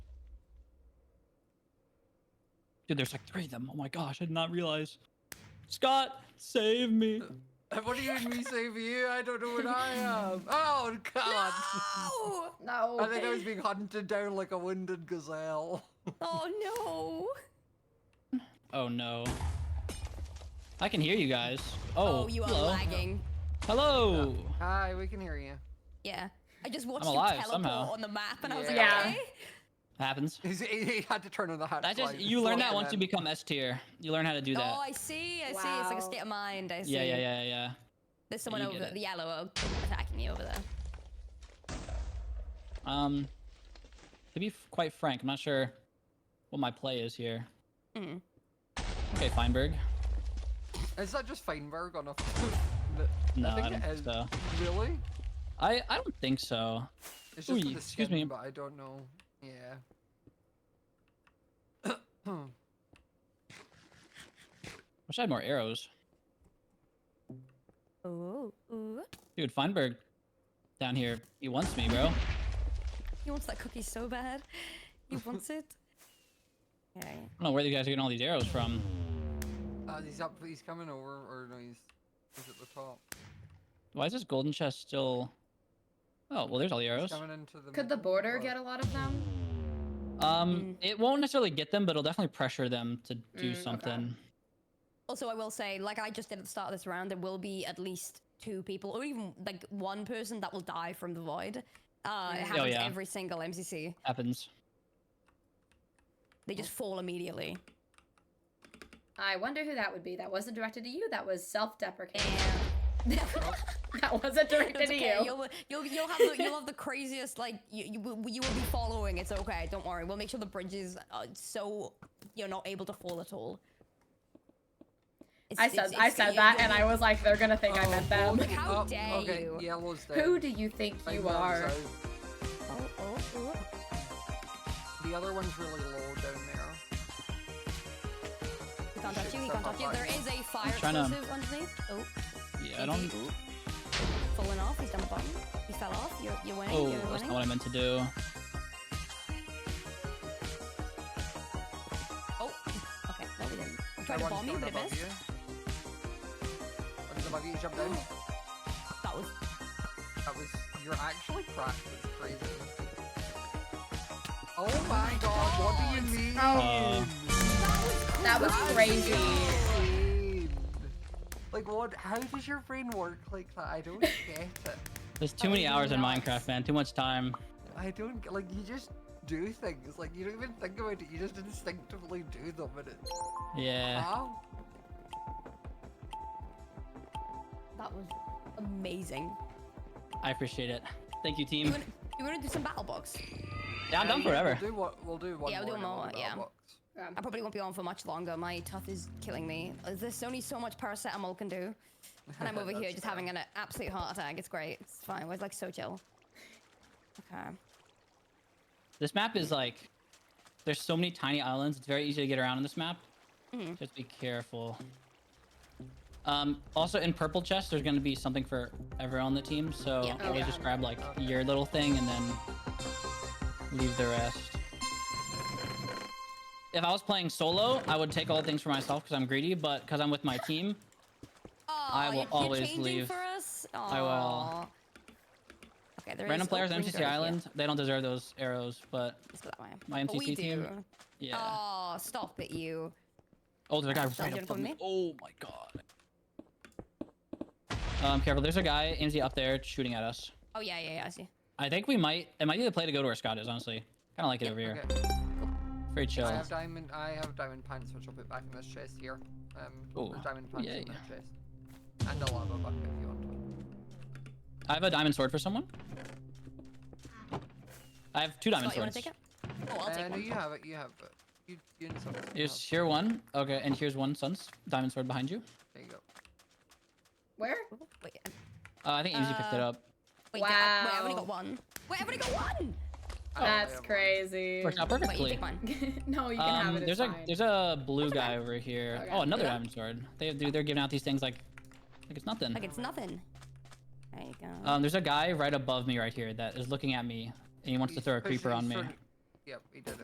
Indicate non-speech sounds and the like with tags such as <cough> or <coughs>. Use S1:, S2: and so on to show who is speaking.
S1: Dude, there's like three of them. Oh my gosh, I did not realize. Scott, save me.
S2: <laughs> What do you mean me save you? I don't know what I am. Oh god!
S3: <laughs> No!
S4: No.
S2: I think I was being hunted down like a wounded gazelle.
S3: Oh no!
S1: Oh no. I can hear you guys. Oh,
S3: Oh, you are
S1: hello.
S3: lagging.
S1: Hello.
S2: <laughs> Hi, we can hear you.
S3: Yeah. I just watched
S1: alive
S3: you teleport
S1: somehow.
S3: on the map and I was like,
S2: Yeah.
S3: okay.
S1: Happens.
S2: He's, he, he had to turn on the hat.
S1: That just
S2: slide
S1: you learn that
S2: before and
S1: once you
S2: then-
S1: become S tier. You learn how to do that.
S3: Oh, I see. I see. It's like a
S4: Wow.
S3: state of mind. I see.
S1: yeah, yeah, yeah, yeah.
S3: There's someone
S1: you
S3: over
S1: get it.
S3: the yellow attacking you over there.
S1: Um, to be f- quite frank, I'm not sure what my play is here.
S3: Hmm.
S1: Okay, Feinberg.
S2: Is that just Feinberg
S1: <laughs>
S2: on a? the-
S1: No, I,
S2: think
S1: don't
S2: it
S1: think
S2: is.
S1: so.
S2: Really?
S1: I I don't think so.
S2: It's just for
S1: Ooh,
S2: the
S1: excuse
S2: skin,
S1: me.
S2: but I don't know. Yeah. <coughs> Uh,
S1: Wish I had more arrows,
S3: Ooh, ooh.
S1: dude. Feinberg, down here, he wants me, bro.
S3: He wants that cookie so bad.
S1: <laughs>
S3: He wants it. Okay.
S1: I don't know where you guys are getting all these arrows from.
S2: Uh, he's up. He's coming over, or no, he's he's at the top.
S1: Why is this golden chest still? Oh well, there's all the
S2: He's
S1: arrows.
S2: coming into the.
S4: Could the border get a lot of them?
S1: Um, it won't necessarily get them, but it'll definitely pressure them to do
S4: Mm, okay.
S1: something.
S3: Also, I will say, like I just did at the start of this round, there will be at least two people, or even like one person, that will die from the void. Uh, it
S4: Mm. Oh,
S3: happens
S1: yeah.
S3: every single MCC.
S1: Happens.
S3: They just fall immediately.
S4: I wonder who that would be. That wasn't directed to you. That was self-deprecating. <laughs>
S3: And
S4: that wasn't directed
S3: it's okay.
S4: to you.
S3: You'll, you'll, you'll have the, you'll have the craziest like you, you will you will be following. It's okay. Don't worry. We'll make sure the bridge is uh, so you're not able to fall at all. It's-
S4: I
S3: it's-
S4: said I
S3: it's-
S4: said
S3: it-
S4: that,
S3: it-
S4: and I was like, they're gonna think I
S2: Oh,
S4: meant them.
S2: okay,
S3: How
S2: up,
S3: dare
S2: okay,
S3: you.
S2: Yellow's dead.
S4: Who do you think you
S2: Feinberg's
S4: are?
S2: out.
S3: Oh, oh, oh.
S2: The other one's really low down there.
S3: He can't touch you. He
S2: Shit,
S3: can't
S2: so
S3: touch you.
S2: hard.
S3: There is a fire
S1: trying to-
S3: explosive underneath. Oh.
S1: Yeah, I don't.
S3: Indeed. fallen off. He's done the bottom. He fell off. You're, you're winning.
S1: Oh,
S3: you're
S1: that's
S3: winning.
S1: not what I meant to do.
S3: Oh, okay. No, we didn't. I tried
S2: That
S3: to
S2: one's
S3: bomb you,
S2: going
S3: but it
S2: above
S3: missed.
S2: you. One's above you. Jump down.
S3: That was.
S2: That was. You're actually cracked. It's crazy. Oh my god, what do you mean?
S1: Uh,
S4: That was crazy.
S2: Insane. Like what? How does your brain work like that? I don't get it.
S1: There's too many
S3: Oh,
S1: hours in
S3: nice.
S1: Minecraft, man. Too much time.
S2: I don't get- like you just do things like you don't even think about it. You just instinctively do them, and it's
S1: Yeah.
S2: how?
S3: That was amazing.
S1: I appreciate it. Thank you,
S3: You
S1: team.
S3: wanna, you wanna do some battle box?
S1: Yeah, I'm done Oh, forever.
S2: We'll do what? We'll do one
S3: Yeah, we'll do
S2: more. and
S3: more,
S2: then we'll
S3: yeah.
S2: Box.
S4: Um,
S3: I probably won't be on for much longer. My tough is killing me. Uh, There's only so much paracetamol can do. And
S1: <laughs>
S3: I'm over here
S2: That's
S3: just
S2: fair.
S3: having an absolute heart attack. It's great. It's fine. We're like so chill. Okay.
S1: This map is like, there's so many tiny islands. It's very easy to get around on this map.
S3: Mm-hmm.
S1: Just be careful. Um, also, in purple chest, there's gonna be something for everyone on the team. So
S3: Yeah.
S1: always
S4: Okay.
S1: just grab like your little thing and then leave the rest. If I was playing solo, I would take all the things for myself because I'm greedy. But because I'm with my team,
S3: Oh,
S1: will
S3: you're,
S1: always
S3: you're changing
S1: leave.
S3: for us?
S1: will.
S3: Aw. Okay, there is
S1: Random players on
S3: open
S1: MCC
S3: door here.
S1: Island, they don't deserve those arrows, but
S3: Let's go that way.
S1: My
S3: But we
S1: MCC team?
S3: do.
S1: yeah.
S3: Oh, stop it, you.
S1: oh, there's a guy
S3: Sounds
S1: right
S3: good
S1: up
S3: for
S1: on me.
S3: me.
S1: Oh my god. Um, careful, there's a guy, MZ up there shooting at us.
S3: Oh, yeah, yeah, yeah, I see.
S1: I think we might, it might be the play to go to where Scott is, honestly. Kinda like it over here.
S2: Okay.
S1: Very chill.
S2: I have diamond. I have diamond pants, which I'll put back in this chest here. Um,
S1: Ooh,
S2: there's diamond pants
S1: yay.
S2: in that chest, and a lava bucket if you want one.
S1: I have a diamond sword for someone. I have two diamond
S3: Scott, you want
S1: swords.
S3: to take it? Oh, I'll
S2: uh,
S3: take
S2: no,
S3: one.
S2: you have it. You have it. You, you and someone else
S4: Oh.
S1: Here's
S2: have
S1: here one. Okay, and here's one sun's diamond sword behind you.
S2: it. There you go.
S1: Oh.
S4: where?
S3: Wait, I-
S1: Uh, I think Easy picked it
S3: Uh,
S1: up.
S3: wait, I- wait, I've only
S4: Wow.
S3: got one. Wait, I've only got one!
S2: I only
S4: That's
S2: have one.
S4: crazy.
S1: Worked out
S3: Wait, you
S1: perfectly.
S3: take mine.
S4: <laughs> no, you can have
S1: Um,
S4: it.
S1: there's
S4: It's
S1: a
S4: fine.
S1: there's a blue guy over here.
S4: Okay.
S1: Oh, another
S4: Yeah.
S1: diamond sword. They dude, they're giving out these things like like it's nothing.
S3: Like, it's nothing. There you go.
S1: Um, there's a guy right above me right here that is looking at me and he wants to
S2: He's
S1: throw a
S2: pushing-
S1: creeper on
S2: he's
S1: me.
S2: throwing- Yep, he did it.